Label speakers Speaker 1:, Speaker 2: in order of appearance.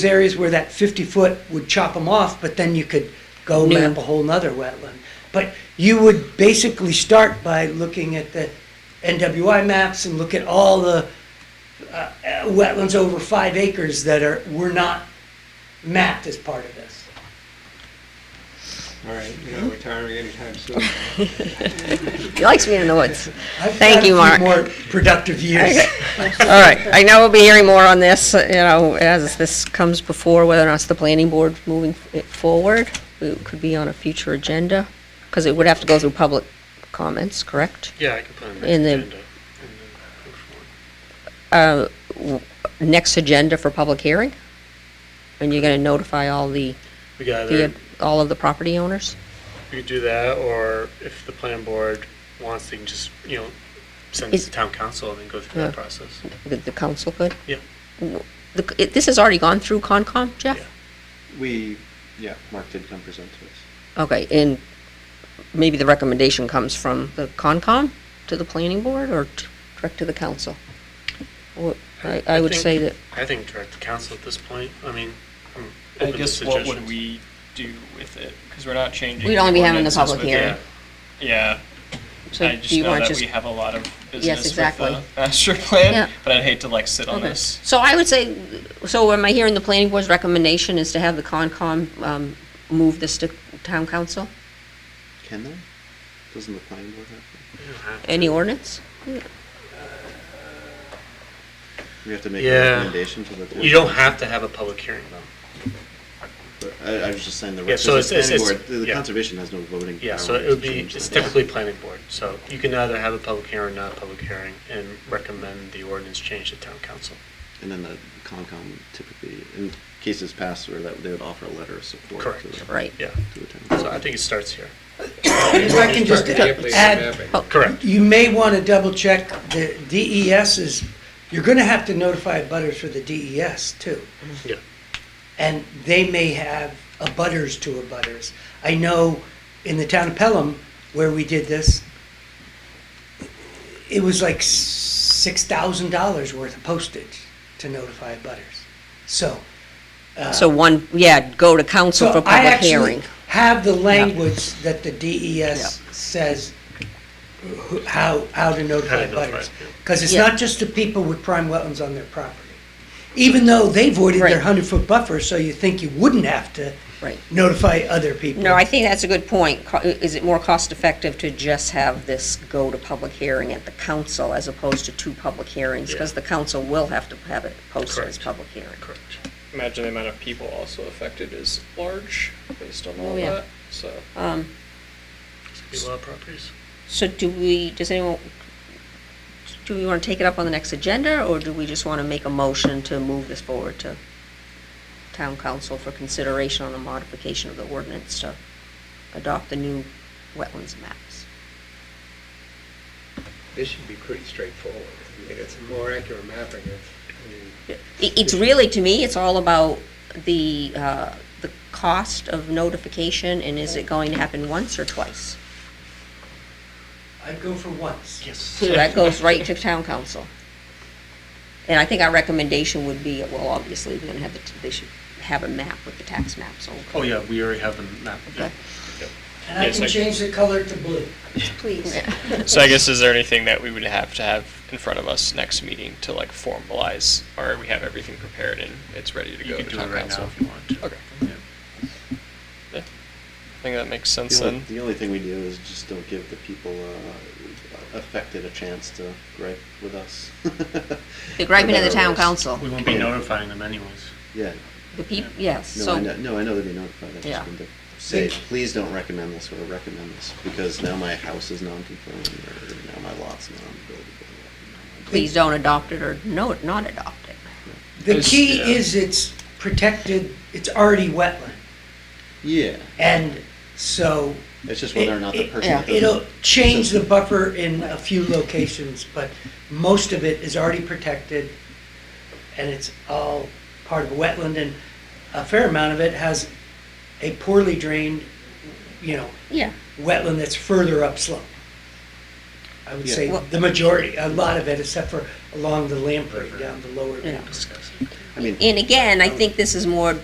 Speaker 1: There's areas where that 50-foot would chop them off, but then you could go
Speaker 2: New.
Speaker 1: map a whole nother wetland. But you would basically start by looking at the NWI maps and look at all the uh, uh, wetlands over five acres that are, were not mapped as part of this.
Speaker 3: All right, you're not retiring anytime soon.
Speaker 2: He likes being in the woods.
Speaker 1: I've
Speaker 2: Thank
Speaker 1: got a
Speaker 2: you,
Speaker 1: few
Speaker 2: Mark.
Speaker 1: more productive years.
Speaker 2: All right, I know we'll be hearing more on this, uh, you know, as this comes before, whether or not it's the planning board moving it forward. It could be on a future agenda, because it would have to go through public comments, correct?
Speaker 4: Yeah, I could put it on the
Speaker 2: In the-
Speaker 4: agenda.
Speaker 2: Uh, w- Next agenda for public hearing? And you're going to notify all the,
Speaker 4: We could
Speaker 2: the,
Speaker 4: either,
Speaker 2: all of the property owners?
Speaker 4: we could do that, or if the planning board wants, they can just, you know, send it
Speaker 2: Is-
Speaker 4: to town council and then go through that
Speaker 2: Yeah.
Speaker 4: process.
Speaker 2: The- The council could?
Speaker 4: Yeah.
Speaker 2: W- the- it- This has already gone through Concom, Jeff?
Speaker 4: Yeah.
Speaker 3: We, yeah, Mark did come present to us.
Speaker 2: Okay, and maybe the recommendation comes from the Concom to the planning board or t- direct to the council? Well, I, I would
Speaker 4: think-
Speaker 2: say that,
Speaker 4: I think direct to council at this point, I mean, I'm
Speaker 5: I
Speaker 4: open to
Speaker 5: guess what would
Speaker 4: suggestions.
Speaker 5: we do with it? Because we're not changing.
Speaker 2: We'd only be having the
Speaker 5: ordinances
Speaker 2: public
Speaker 5: with
Speaker 2: hearing.
Speaker 5: it. Yeah,
Speaker 2: so
Speaker 5: I
Speaker 2: do
Speaker 5: just
Speaker 2: you
Speaker 5: know
Speaker 2: want
Speaker 5: that
Speaker 2: just?
Speaker 5: we have a lot of
Speaker 2: Yes,
Speaker 5: business with
Speaker 2: exactly.
Speaker 5: the master plan,
Speaker 2: Yeah.
Speaker 5: but I'd hate to like sit on
Speaker 2: Okay,
Speaker 5: this.
Speaker 2: so I would say, so am I hearing the planning board's recommendation is to have the Concom, um, move this to town council?
Speaker 3: Can they? Doesn't the planning board have?
Speaker 4: You don't have to.
Speaker 2: Any ordinance?
Speaker 3: to? We have to make
Speaker 4: Yeah.
Speaker 3: a recommendation to the. board.
Speaker 4: You don't have to have a public hearing, though.
Speaker 3: I, I was just saying the.
Speaker 4: Yeah, so
Speaker 3: because the
Speaker 4: it's- it's-
Speaker 3: planning
Speaker 4: it's-
Speaker 3: board- The the
Speaker 4: yeah.
Speaker 3: conservation has no voting.
Speaker 4: Yeah,
Speaker 3: power
Speaker 4: so it
Speaker 3: to
Speaker 4: would be,
Speaker 3: change
Speaker 4: it's
Speaker 3: that.
Speaker 4: typically planning board, so you can either have a public hearing or not a public hearing, and recommend the ordinance change to town council.
Speaker 3: And then the Concom typically, in cases past where that, they would offer a letter of support. to
Speaker 4: Correct.
Speaker 3: the-
Speaker 2: Right.
Speaker 4: Yeah,
Speaker 3: To the town.
Speaker 4: so I think it starts here.
Speaker 1: If I can just add
Speaker 2: Oh.
Speaker 4: Correct.
Speaker 1: You may want to double check the DES is, you're going to have to notify butters for the DES too.
Speaker 4: Yeah.
Speaker 1: And they may have a butters to a butters. I know in the town of Pelham where we did this, it was like six thousand dollars worth of postage to notify butters. So. uh,
Speaker 2: So one, yeah, go to council
Speaker 1: so
Speaker 2: for
Speaker 1: I
Speaker 2: public
Speaker 1: actually
Speaker 2: hearing.
Speaker 1: have the language that the DES says who- how, how to
Speaker 4: How
Speaker 1: notify
Speaker 4: to notify,
Speaker 1: butters.
Speaker 4: yeah.
Speaker 1: Because it's
Speaker 2: Yeah.
Speaker 1: not just the people with prime wetlands on their property. Even though they voided their
Speaker 2: Right.
Speaker 1: hundred-foot buffer, so you think you wouldn't have to
Speaker 2: Right.
Speaker 1: notify other people.
Speaker 2: No, I think that's a good point. Co- Is it more cost-effective to just have this go to public hearing at the council as opposed to two public hearings? Because the council will have to have it posted as
Speaker 4: Correct.
Speaker 2: public hearing.
Speaker 4: Correct.
Speaker 5: Imagine the amount of people also affected is large based on
Speaker 2: all Oh, yeah. that,
Speaker 5: So
Speaker 2: Um,
Speaker 4: Could be a lot of properties.
Speaker 2: So do we, does anyone, do we want to take it up on the next agenda, or do we just want to make a motion to move this forward to town council for consideration on the modification of the ordinance to adopt the new wetlands maps?
Speaker 6: This should be pretty straightforward. I mean, it's a more accurate mapping of, I mean,
Speaker 2: I- It's really, to me, it's all about the, uh, the cost of notification, and is it going to happen once or twice?
Speaker 1: I'd go for once.
Speaker 4: Yes.
Speaker 2: So that goes right to town council. And I think our recommendation would be, well, obviously, we're gonna have, the- they should have a map with the tax map, so.
Speaker 4: Oh, yeah, we already have them mapped. yeah.
Speaker 2: Okay.
Speaker 1: And I
Speaker 5: Yes,
Speaker 1: can
Speaker 5: I-
Speaker 1: change the color to blue.
Speaker 2: Please.
Speaker 5: I guess is there anything that we would have to have in front of us next meeting to like formalize, or we have everything prepared and it's ready to
Speaker 4: You
Speaker 5: go to
Speaker 4: can do it
Speaker 5: town
Speaker 4: right now
Speaker 5: council?
Speaker 4: if you want to.
Speaker 5: Okay. Yeah. I think that makes sense
Speaker 3: The only,
Speaker 5: then.
Speaker 3: the only thing we do is just don't give the people uh, affected a chance to gripe with us.
Speaker 2: The griping of the
Speaker 3: For better or
Speaker 2: town
Speaker 3: worse.
Speaker 2: council,
Speaker 4: We won't be notifying them anyways.
Speaker 3: Yeah,
Speaker 2: the peop, yes,
Speaker 3: no, I know,
Speaker 2: so,
Speaker 3: no, I know they'll be notified, I
Speaker 2: Yeah.
Speaker 3: just wanted to say, please don't recommend this or recommend this, because now my house is non-conforming, or now my lot's non-buildable.
Speaker 2: please don't adopt it or no, not adopt it.
Speaker 1: The
Speaker 5: It's-
Speaker 1: key
Speaker 5: yeah.
Speaker 1: is it's protected, it's already wetland.
Speaker 3: Yeah,
Speaker 1: And so
Speaker 3: it's just whether or not the
Speaker 1: It-
Speaker 3: person. that
Speaker 2: yeah.
Speaker 1: It'll
Speaker 3: doesn't-
Speaker 1: change the buffer in a few locations, but most of it is already protected, and it's all part of a wetland, and a fair amount of it has a poorly drained, you know,
Speaker 2: Yeah.
Speaker 1: wetland that's further upslope. I would
Speaker 3: Yeah.
Speaker 1: say
Speaker 2: Well-
Speaker 1: the majority, a lot of it, except for along the Lamprey, down the lower
Speaker 2: Yeah.
Speaker 1: banks.
Speaker 4: Discuss it.
Speaker 3: I mean.
Speaker 2: And again, I think this is more